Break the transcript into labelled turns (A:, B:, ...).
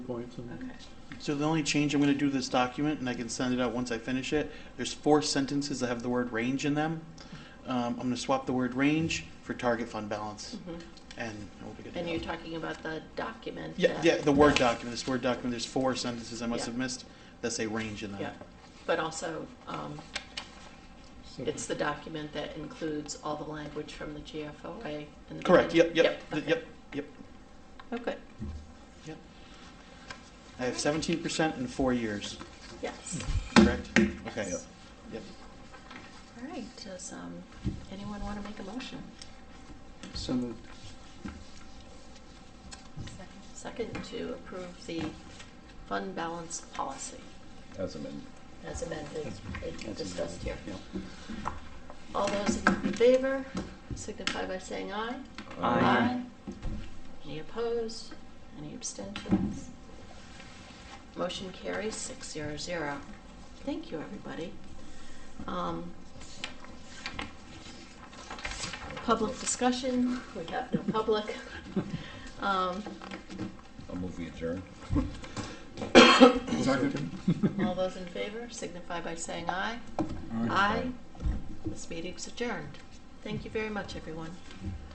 A: points and.
B: Okay.
C: So the only change I'm going to do to this document, and I can send it out once I finish it, there's four sentences that have the word range in them. Um, I'm going to swap the word range for target fund balance,
B: Mhm.
C: and we'll be good to
B: And
C: go.
B: you're talking about the document?
C: Yeah,
B: that-
C: yeah, the Word document, this Word document, there's four sentences I must
B: Yeah.
C: have missed that say range in
B: Yeah,
C: that.
B: but also, um,
A: so-
B: it's the document that includes all the language from the GFOA. and the-
C: Correct, yep, yep, th-
B: okay.
C: yep, yep.
B: Oh, good,
C: I have seventeen percent in four years,
B: yes.
C: correct? Okay.
B: Yes. All right, does, um, anyone want to make a motion?
A: So moved.
B: Second, to approve the fund balance policy
D: As amended.
B: as amended, as we
C: That's
B: discussed here.
C: Yeah.
B: All those in favor signify by saying aye.
D: Aye.
B: Any opposed? Any abstentions? Motion carries six zero zero. Thank you, everybody. Um, Public discussion, we have no public. Um,
D: I'll move we adjourn.
B: All those in favor signify by saying aye. Aye. This meeting's adjourned. Thank you very much, everyone.